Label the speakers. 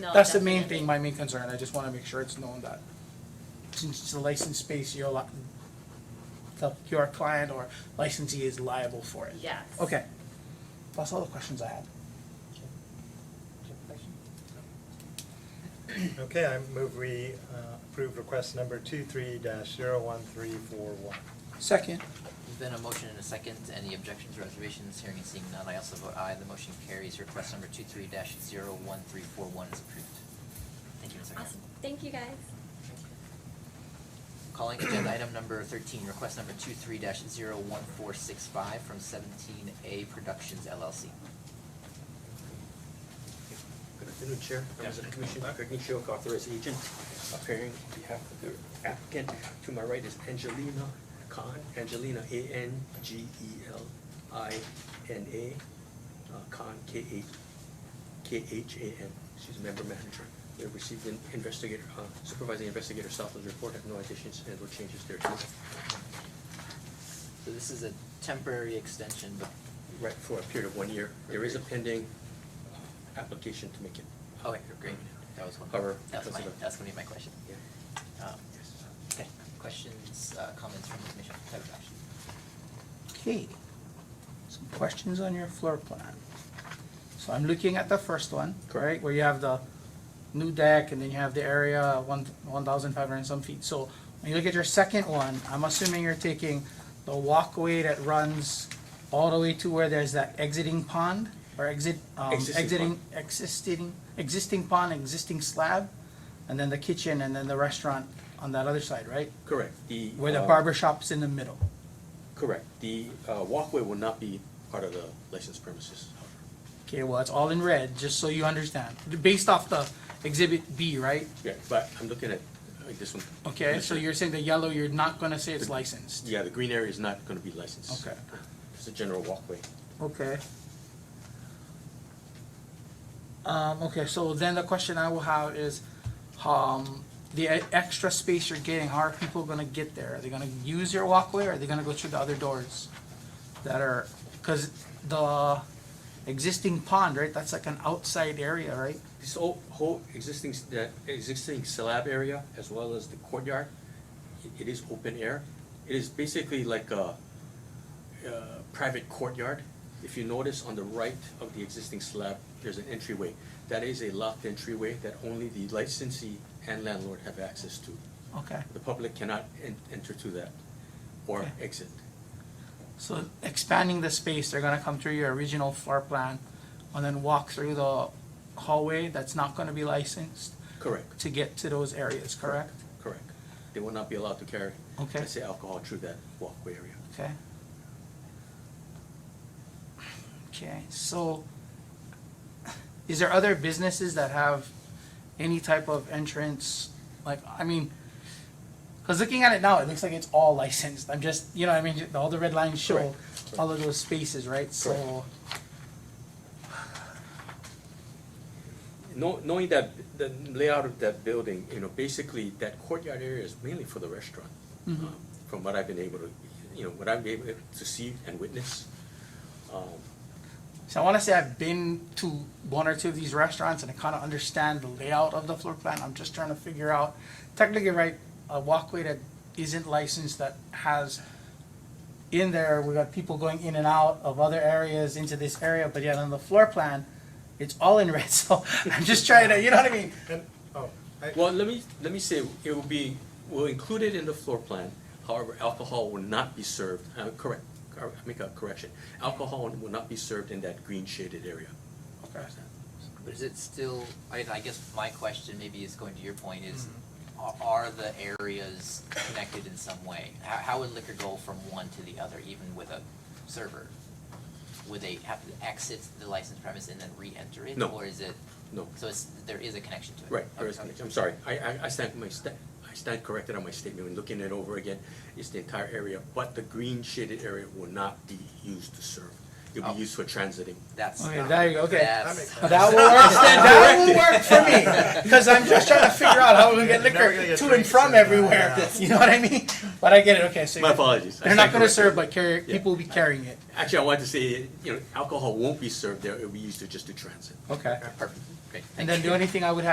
Speaker 1: No,
Speaker 2: that's the main
Speaker 1: definitely.
Speaker 2: thing, my main concern, I just wanna make sure it's known that since it's a licensed space, you're li- the, your client or licensee is liable for it.
Speaker 1: Yes.
Speaker 2: Okay, that's all the questions I had.
Speaker 3: Okay, I move we uh, approve request number two-three dash zero-one-three-four-one.
Speaker 2: Second,
Speaker 4: There's been a motion and a second. Any objections or reservations? Hearing and seeing none, I also vote aye. The motion carries. Request number two-three dash zero-one-three-four-one is approved. Thank you, Ms. Aguirre.
Speaker 1: Awesome. Thank you, guys.
Speaker 4: Calling agenda item number thirteen, request number two-three dash zero-one-four-six-five from Seventeen A Productions LLC.
Speaker 5: Good afternoon, Chair, members of the commission, Greg Nishio, authorized agent, appearing on behalf of the applicant. To my right is Angelina Khan, Angelina, E A-N-G-E-L-I-N-A, uh, Khan, K-A, K-H-A-N. She's a member manager. We have received an investigator, uh, supervising investigator Southland's report, have no additions and or changes there too.
Speaker 4: So this is a temporary extension, but,
Speaker 5: Right, for a period of one year. There is a pending application to make it.
Speaker 4: oh, wait, great. That was one.
Speaker 5: However,
Speaker 4: That was my,
Speaker 5: because of the-
Speaker 4: that's gonna be my question.
Speaker 5: Yeah,
Speaker 4: Um,
Speaker 5: yes.
Speaker 4: okay, questions, uh, comments from the commission, type of action?
Speaker 2: okay, some questions on your floor plan. So I'm looking at the first one, right, where you have the new deck and then you have the area one, one thousand five hundred and some feet. So when you look at your second one, I'm assuming you're taking the walkway that runs all the way to where there's that exiting pond or exit, um,
Speaker 5: Existing
Speaker 2: exiting, existing, existing pond, existing slab? And then the kitchen and then the restaurant on that other side, right?
Speaker 5: Correct, the.
Speaker 2: Where the
Speaker 5: uh,
Speaker 2: barber shop's in the middle.
Speaker 5: Correct. The uh, walkway will not be part of the licensed premises.
Speaker 2: Okay, well, it's all in red, just so you understand. Based off the exhibit B, right?
Speaker 5: Yeah, but I'm looking at uh, this one.
Speaker 2: Okay, so you're saying the yellow, you're not gonna say it's licensed?
Speaker 5: Yeah, the green area is not going to be licensed.
Speaker 2: Okay.
Speaker 5: It's a general walkway.
Speaker 2: Okay. Um, okay, so then the question I will have is, um, the e- extra space you're getting, how are people gonna get there? Are they gonna use your walkway, or are they gonna go through the other doors? That are, cause the existing pond, right, that's like an outside area, right?
Speaker 5: This whole, whole existing, s- the existing slab area as well as the courtyard, i- it is open air. It is basically like a uh, private courtyard. If you notice on the right of the existing slab, there's an entryway. That is a locked entryway that only the licensee and landlord have access to.
Speaker 2: Okay.
Speaker 5: The public cannot en- enter to that or
Speaker 2: Okay.
Speaker 5: exit.
Speaker 2: So expanding the space, they're gonna come through your original floor plan and then walk through the hallway that's not gonna be licensed
Speaker 5: Correct,
Speaker 2: to get to those areas, correct?
Speaker 5: correct. They will not be allowed to carry,
Speaker 2: Okay.
Speaker 5: let's say, alcohol through that walkway area.
Speaker 2: Okay. Okay, so is there other businesses that have any type of entrance? Like, I mean, cause looking at it now, it looks like it's all licensed. I'm just, you know, what I mean, all the red lines show
Speaker 5: Correct,
Speaker 2: all of those spaces, right? So,
Speaker 5: Know- Knowing that, the layout of that building, you know, basically, that courtyard area is mainly for the restaurant. um, From what I've been able to, you know, what I've been able to see and witness. Um,
Speaker 2: So I want to say I've been to one or two of these restaurants and I kind of understand the layout of the floor plan. I'm just trying to figure out technically, right, a walkway that isn't licensed that has in there, we got people going in and out of other areas into this area, but yet on the floor plan, it's all in red. So I'm just trying to, you know what I mean?
Speaker 3: And, oh, I,
Speaker 5: Well, let me, let me say, it will be, we'll include it in the floor plan, however, alcohol will not be served, uh, correct, cor- make a correction. Alcohol will not be served in that green shaded area.
Speaker 2: Okay.
Speaker 4: But is it still, I, I guess my question maybe is going to your point is, are,
Speaker 2: Mm-hmm.
Speaker 4: are the areas connected in some way? How, how would liquor go from one to the other, even with a server? Would they have to exit the licensed premise and then re-enter it?
Speaker 5: No.
Speaker 4: Or is it,
Speaker 5: No,
Speaker 4: so it's, there is a connection to it?
Speaker 5: right, there is
Speaker 4: Okay, okay.
Speaker 5: connection. I'm sorry, I, I, I stand my sta- I stand corrected on my statement, when looking it over again, it's the entire area, but the green shaded area will not be used to serve. It'll
Speaker 4: Oh.
Speaker 5: be used for transiting.
Speaker 4: That's.
Speaker 2: Okay, there you go, okay.
Speaker 4: that's-
Speaker 3: That makes sense.
Speaker 2: That will work, that will work for me, because I'm just trying to figure out how we
Speaker 3: Yeah,
Speaker 2: get
Speaker 3: you're never gonna
Speaker 2: liquor
Speaker 3: get
Speaker 2: to and
Speaker 3: drinks
Speaker 2: from
Speaker 3: in, uh,
Speaker 2: everywhere,
Speaker 3: yeah.
Speaker 2: you know what I mean? But I get it, okay, so.
Speaker 5: My
Speaker 2: you're-
Speaker 5: apologies. I
Speaker 2: They're not
Speaker 5: stand
Speaker 2: gonna
Speaker 5: corrected.
Speaker 2: serve, but carry,
Speaker 5: Yeah.
Speaker 2: people will be carrying it,
Speaker 5: Actually, I wanted to say, you know, alcohol won't be served there, it'll be used to just to transit.
Speaker 2: okay.
Speaker 4: Perfect. Great,
Speaker 2: And
Speaker 4: thank
Speaker 2: then the
Speaker 4: you.
Speaker 2: only thing I would have